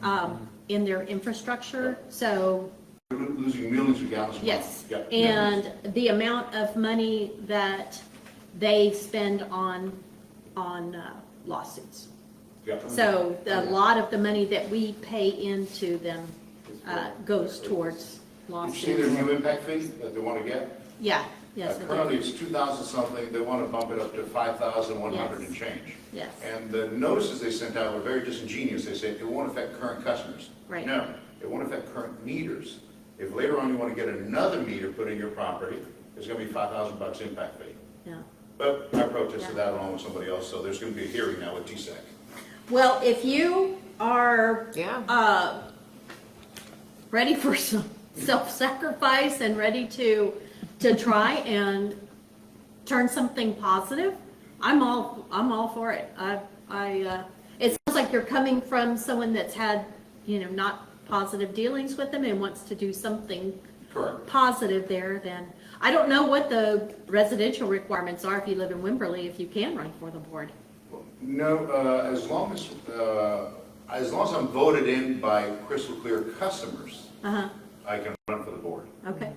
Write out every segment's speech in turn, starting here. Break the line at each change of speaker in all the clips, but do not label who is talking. um, in their infrastructure. So,
We're losing millions of gallons. a month.
yes.
Yeah.
And the amount of money that they spend on, on uh, lawsuits.
Yeah.
So a lot of the money that we pay into them uh, goes towards
Did you see their
lawsuits.
new impact fee that they want to get?
Yeah,
Uh,
yes, it
Currently,
is.
it's 2,000 something, they want to bump it up to 5,100 and change.
Yes.
And the notices they sent out were very disingenuous, they said it won't affect current customers.
Right.
No, it won't affect current meters. If later on you want to get another meter put in your property, it's going to be 5,000 bucks impact fee.
yeah.
But I protested that along with somebody else, so there's going to be a hearing now with E TSEC.
Well, if you are
Yeah.
uh, ready for some self-sacrifice and ready to to try and turn something positive, I'm all I'm all for it. I I uh, it sounds like you're coming from someone that's had you know not positive dealings with them and wants to do something
Correct.
positive there. Then I don't know what the residential requirements are if you live in Wimberley if you can run for the board.
No, uh, as long as, uh, as long as I'm voted in by crystal clear customers,
Uh huh.
I can run for the board.
Okay.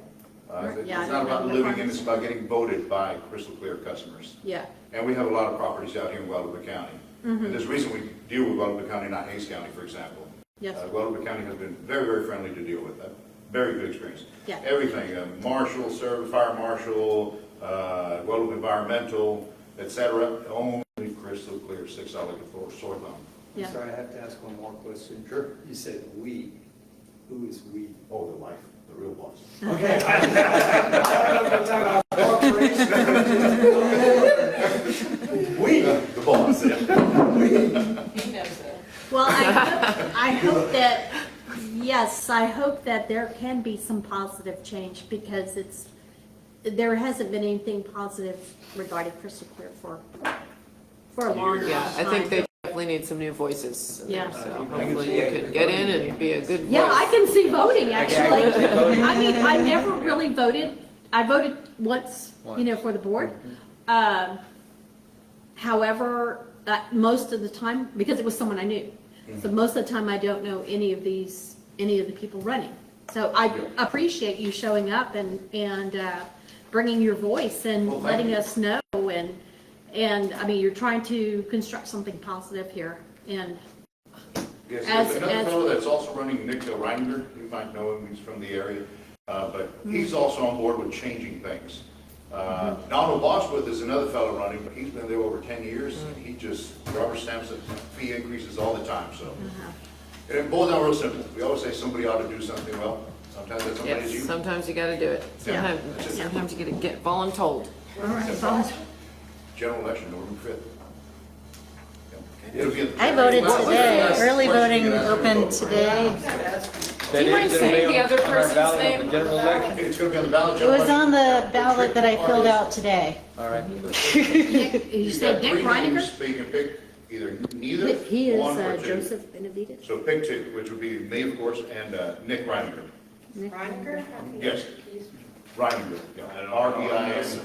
Uh, It's
Yeah, I
not
don't
about
know.
living in, it's about getting voted by crystal clear customers.
Yeah.
And we have a lot of properties out here in Guadalupe County.
Mm-hmm.
And there's a reason we deal with Guadalupe County, not Hays County, for example.
Yes.
Uh, Guadalupe County has been very, very friendly to deal with, Uh, very good experience.
Yeah.
Everything, uh, marshal, service, fire marshal, uh, Guadalupe Environmental, et cetera, only crystal clear six dollar for um, sore thumb.
Yeah.
I'm sorry, I have to ask one more question.
Sure.
You said "we." Who is "we"?
Oh, the life, the real boss.
Okay. We.
The boss, yeah.
Well, I hope, I hope that, yes, I hope that there can be some positive change because it's, there hasn't been anything positive regarding Crystal Clear for, for a long, long time.
Yeah, I think they definitely need some new voices. in there,
Yeah.
So hopefully you could get in and be a good voice.
Yeah, I can see voting,
I
actually.
can see voting.
I mean, I never really voted, I voted once, you know, for the board. Um, However, uh, most of the time, because it was someone I knew, so most of the time I don't know any of these, any of the people running. So I appreciate you showing up and, and uh, bringing your voice and
Well, thank
letting
you.
us know and, and, I mean, you're trying to construct something positive here and,
Yes,
As-
there's another
as-
fellow that's also running, Nick Reiniger, you might know him, he's from the area, uh, but
Hmm.
he's also on board with changing things. Uh,
Mm-hmm.
Donald Bosworth is another fellow running, but he's been there over 10 years, and
Mm.
he just rubber stamps it, fee increases all the time, so.
Uh-huh.
And it boils down real simple, we always say somebody ought to do something, well, sometimes that somebody is
Yes,
you.
sometimes you gotta do it.
Yeah.
Sometimes, sometimes you gotta get voluntold.
all right, Bob.
General election, November 5th. Yeah. It'll be at the-
I voted
Well,
today,
that's the
early
question,
voting
you gotta ask
opened
everybody.
today.
Do you mind saying the other person's name?
General election?
It's gonna be on the ballot.
It was on the ballot that I filled out today.
All right.
Nick- You said Nick Reiniger?
So you can pick either neither,
He is
one or
uh,
two.
Joseph Benavides.
So pick two, which would be me, of course, and uh, Nick Reininger.
Nick
Reininger?
Yes. Reininger, yeah, E R-E-I-N.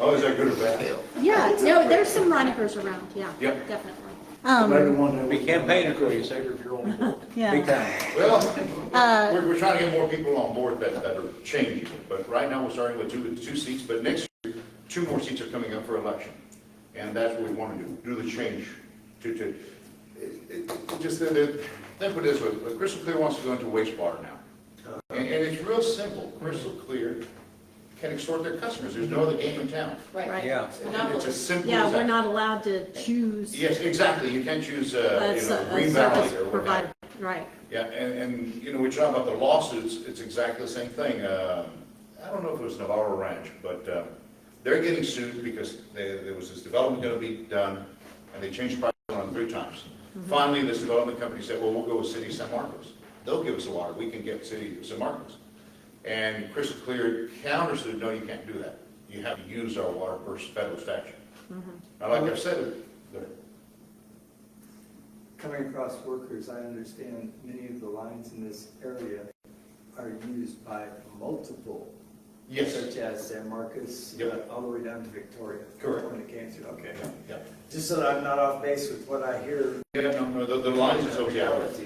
Oh, is that good or bad?
Yeah, no, there's some Reinigers around, yeah.
Yep.
Definitely.
Um,
We campaigned for you, sir, if you're on board. Big
yeah.
time.
Well,
Uh,
we're, we're trying to get more people on board that, that are changing, but right now we're starting with two, two seats, but next year, two more seats are coming up for election. And that's what we want to do, do the change to, to, it, it, just, that- that- let me put it this way, Crystal Clear wants to go into wastewater now. And, and it's real simple, Crystal Clear can extort their customers, there's no other game in town.
Right.
Yeah.
It's as simple
Yeah,
as
we're
that.
not allowed to choose
Yes, exactly, you can't choose, uh,
a
you
s-
know,
a
Green Valley or
service
whatever.
provider, right.
Yeah, and, and, you know, we talk about the lawsuits, it's exactly the same thing. Um, I don't know if it was Navarro Ranch, but uh, they're getting sued because there there was this development going to be done, and they changed price on three times. Finally, this development company said, well, we'll go with City of San Marcos. They'll give us the water, we can get City of San Marcos. And Crystal Clear countersued, no, you can't do that. You have to use our water per federal statute. Now, like I said, the-
Coming across workers, I understand many of the lines in this area are used by multiple.
Yes.
Such as San Marcos, uh,
Yep.
all the way down to Victoria.
Correct.
When it came through, okay.
yeah.
Just so that I'm not off base with what I hear.
Yeah, no, no, the the lines is okay.
Reality.